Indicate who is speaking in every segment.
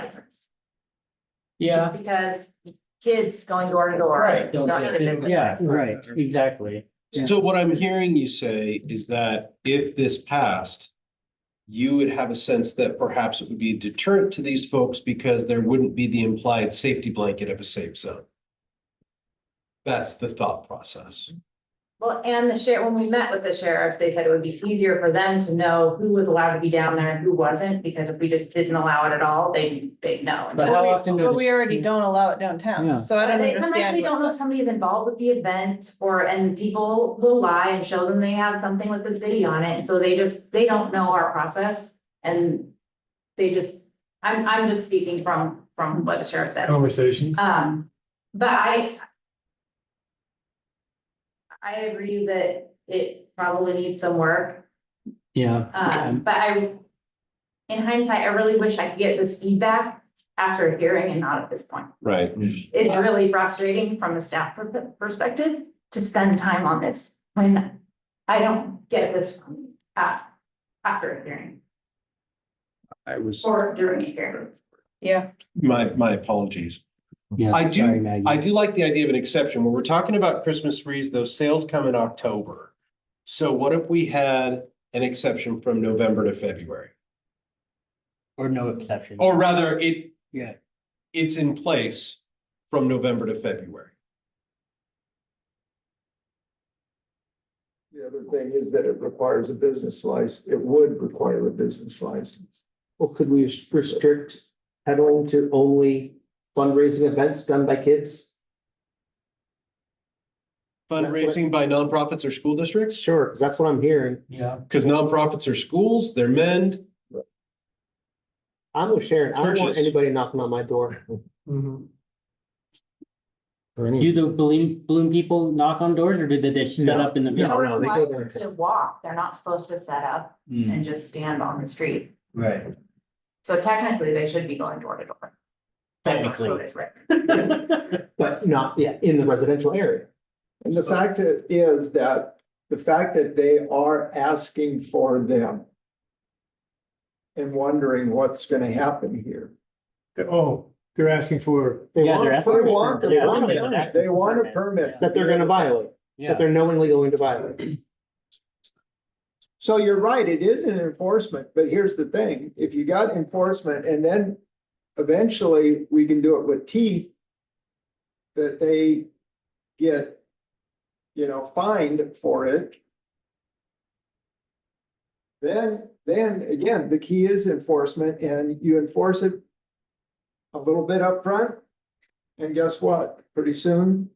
Speaker 1: license.
Speaker 2: Yeah,
Speaker 1: Because kids going door to door,
Speaker 2: right,
Speaker 1: don't need a business.
Speaker 2: yeah,
Speaker 1: license.
Speaker 3: right,
Speaker 2: right, exactly.
Speaker 3: Yeah.
Speaker 4: So what I'm hearing you say is that if this passed, you would have a sense that perhaps it would be a deterrent to these folks because there wouldn't be the implied safety blanket of a safe zone. That's the thought process.
Speaker 1: Well, and the sheriff, when we met with the sheriffs, they said it would be easier for them to know who was allowed to be down there and who wasn't, because if we just didn't allow it at all, they, they'd know.
Speaker 2: But how often do?
Speaker 5: But
Speaker 2: the-
Speaker 5: we already don't allow it
Speaker 3: Yeah.
Speaker 5: downtown, so I don't
Speaker 1: They- Sometimes we
Speaker 5: understand.
Speaker 1: don't know if somebody's involved with the event or, and people will lie and show them they have something with the city on it, and so they just, they don't know our process. And they just, I'm, I'm just speaking from, from what the sheriff said.
Speaker 6: conversations.
Speaker 1: Um, but I. I agree that it probably needs some work,
Speaker 2: Yeah.
Speaker 1: um, but I. In hindsight, I really wish I could get this feedback after a hearing and not at this point.
Speaker 4: Right.
Speaker 1: It's really frustrating from a staff per- perspective to spend time on this when I don't get this from, uh, after a hearing
Speaker 4: I was,
Speaker 1: or during a hearing.
Speaker 5: Yeah,
Speaker 4: my, my apologies.
Speaker 2: Yeah,
Speaker 4: I do-
Speaker 2: sorry, Maggie.
Speaker 4: I do like the idea of an exception. When we're talking about Christmas trees, those sales come in October. So what if we had an exception from November to February?
Speaker 2: Or no exception.
Speaker 4: Or rather, it.
Speaker 2: Yeah.
Speaker 4: It's in place from November to February.
Speaker 7: The other thing is that it requires a business license. It would require a business license.
Speaker 8: Well, could we restrict peddling to only fundraising events done by kids?
Speaker 4: Fundraising by nonprofits or school districts,
Speaker 8: Sure, because that's what I'm hearing.
Speaker 2: Yeah,
Speaker 4: because nonprofits are schools, they're men.
Speaker 8: I'm with Sharon. I don't want
Speaker 4: Churches.
Speaker 8: anybody knocking on my door. Or any-
Speaker 2: do the balloon, balloon people knock on doors or did they just shut
Speaker 8: No.
Speaker 2: up in the
Speaker 8: No.
Speaker 2: middle?
Speaker 8: they go there.
Speaker 1: To walk, they're not supposed to set up
Speaker 2: Hmm,
Speaker 1: and just stand on the street.
Speaker 2: Right,
Speaker 1: So technically, they should be going door to door. That's not
Speaker 2: technically.
Speaker 1: voted, right.
Speaker 8: But not, yeah, in the residential area.
Speaker 7: And the fact that is that, the fact that they are asking for them. And wondering what's gonna happen here.
Speaker 6: Oh, they're asking for,
Speaker 8: They
Speaker 2: Yeah,
Speaker 8: want-
Speaker 2: they're
Speaker 7: They
Speaker 2: asking for a
Speaker 7: want,
Speaker 2: permit.
Speaker 7: they
Speaker 8: Yeah,
Speaker 7: want,
Speaker 8: they're
Speaker 7: a permit. they want a permit.
Speaker 8: That they're gonna violate,
Speaker 2: Yeah.
Speaker 8: that they're knowingly going to violate.
Speaker 7: So you're right, it is an enforcement, but here's the thing, if you got enforcement and then eventually we can do it with teeth. That they get, you know, fined for it. Then, then again, the key is enforcement and you enforce it. A little bit upfront. And guess what? Pretty soon,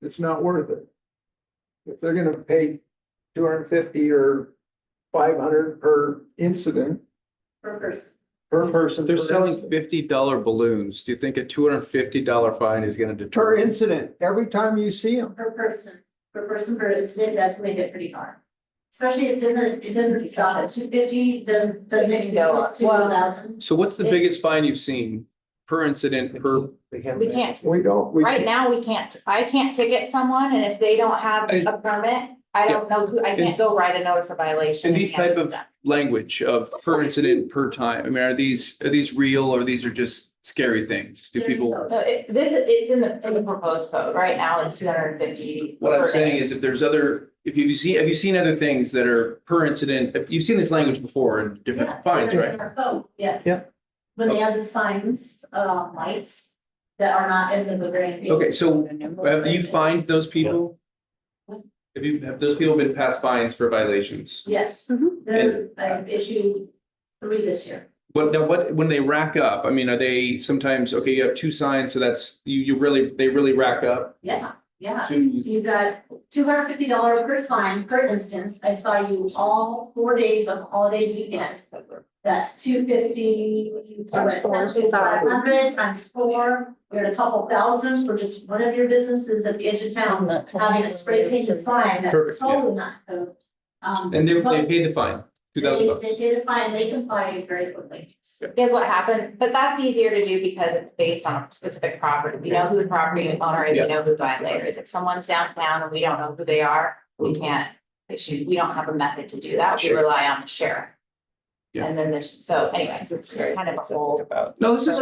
Speaker 7: it's not worth it. If they're gonna pay two hundred and fifty or five hundred per incident,
Speaker 1: Per person.
Speaker 7: per person.
Speaker 9: They're
Speaker 7: per
Speaker 9: selling
Speaker 7: incident.
Speaker 9: fifty dollar balloons. Do you think a two hundred and fifty dollar fine is gonna
Speaker 7: Per
Speaker 9: deter?
Speaker 7: incident, every time you see them.
Speaker 1: Per person, per person per incident, that's made it pretty hard. Especially it doesn't, it doesn't stop at two fifty, doesn't, doesn't go up to one thousand.
Speaker 9: So what's the biggest fine you've seen per incident per?
Speaker 1: We can't,
Speaker 7: We don't, we.
Speaker 1: right now, we can't, I can't ticket someone, and if they don't have
Speaker 9: And-
Speaker 1: a permit, I don't know who, I can't go write a notice of violation.
Speaker 9: And these
Speaker 1: can't
Speaker 9: type
Speaker 1: do
Speaker 9: of
Speaker 1: that.
Speaker 9: language of per incident, per time, I mean, are these, are these real or these are just scary things? Do people?
Speaker 1: No, it, this, is- it's in the, in the proposed code, right now it's two hundred and fifty.
Speaker 9: What I'm saying is if there's other, if you've seen, have you seen other things that are per incident? If you've seen this language before in different fines, right?
Speaker 1: Oh, yeah.
Speaker 8: Yeah.
Speaker 1: When they have the signs, uh, lights that are not in the Bavarian.
Speaker 9: Okay, so Have you fined those people? Have you, have those people been passed fines for violations?
Speaker 1: Yes, there, I've issued three this year.
Speaker 9: But now what, when they rack up, I mean, are they sometimes, okay, you have two signs, so that's, you, you really, they really rack up?
Speaker 10: Yeah, yeah.
Speaker 9: Two,
Speaker 10: You got two hundred fifty dollar per sign, for instance, I saw you all four days of holiday weekend. That's two fifty,
Speaker 7: Times four.
Speaker 10: five hundred times four, you're at a couple thousand for just one of your businesses at the edge of town. Having a spray painted sign, that's
Speaker 9: Perfect, yeah.
Speaker 10: totally not code. Um,
Speaker 9: and they, they
Speaker 10: but
Speaker 9: paid the fine, two
Speaker 10: They,
Speaker 9: thousand
Speaker 10: they
Speaker 9: bucks.
Speaker 10: did a fine, they complied very quickly.
Speaker 1: Is what happened, but that's easier to do because it's based on a specific property. We know who the property owner is,
Speaker 9: Yeah.
Speaker 1: we know who the violator is. If someone's downtown and we don't know who they are, we can't issue, we don't have a method to do that. We
Speaker 9: Sure.
Speaker 1: rely on the sheriff.
Speaker 9: Yeah.
Speaker 1: And then there's, so anyways, it's kind of a whole.
Speaker 9: No, this is